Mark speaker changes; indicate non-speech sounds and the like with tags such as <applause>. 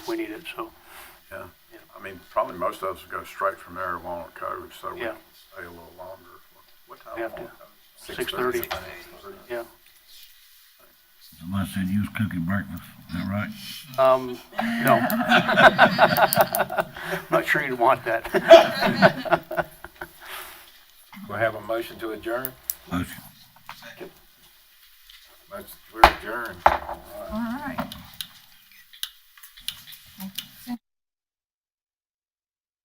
Speaker 1: we need it, so,
Speaker 2: Yeah,
Speaker 1: Yeah.
Speaker 2: I mean, probably most of us go straight from marijuana to code, so we
Speaker 1: Yeah.
Speaker 2: can stay a little longer. What time?
Speaker 1: We have
Speaker 2: on
Speaker 1: to.
Speaker 2: code?
Speaker 1: 6:30.
Speaker 2: 6:30.
Speaker 1: yeah.
Speaker 3: Unless they use cookie breakfast, is that right?
Speaker 1: Um, no. <laughs> Not sure you'd want that.
Speaker 4: We'll have a motion to adjourn.
Speaker 3: Motion.
Speaker 4: Motion- We're adjourned.
Speaker 5: All right.